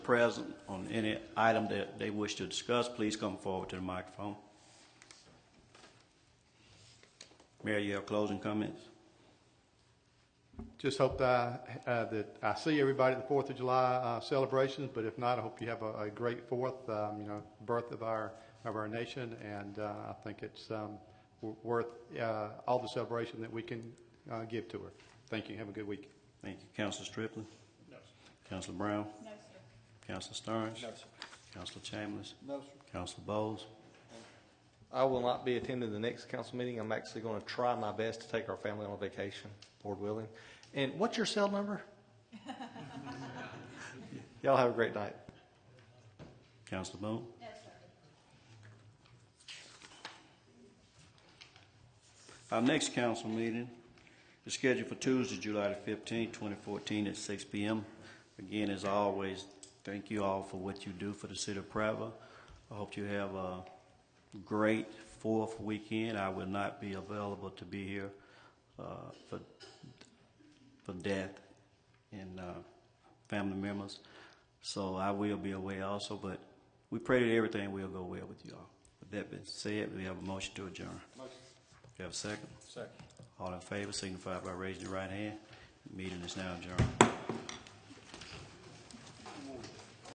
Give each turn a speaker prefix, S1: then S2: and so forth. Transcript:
S1: present on any item that they wish to discuss, please come forward to the microphone. Mayor, you have closing comments?
S2: Just hope that I, uh, that I see everybody at the Fourth of July uh, celebrations, but if not, I hope you have a, a great Fourth, um, you know, birth of our, of our nation, and uh, I think it's um, w- worth uh, all the celebration that we can uh, give to her. Thank you, have a good week.
S1: Thank you. Counselor Striplin?
S3: No,
S1: Counselor Brown?
S4: No, sir.
S1: Counselor Sterns?
S3: sir.
S1: Counselor Chambers?
S3: No, sir.
S1: Counselor Bowles?
S5: I will not be attending the next council meeting. I'm actually going to try my best to take our family on a vacation, Lord willing. And what's your cell number? Y'all have a great night.
S1: Counselor Boone?
S4: No, sir.
S1: Our next council meeting is scheduled for Tuesday, July the fifteenth, twenty fourteen, at six P M. Again, as always, thank you all for what you do for the city of Prattville. I hope you have a great fourth weekend. I will not be available to be here, uh, for, for death and, uh, family members. So I will be away also, but we pray that everything will go well with you all. With that being said, we have a motion to adjourn. You have a second?
S3: Second.
S1: All in favor signify by raising your right hand. Meeting is now adjourned.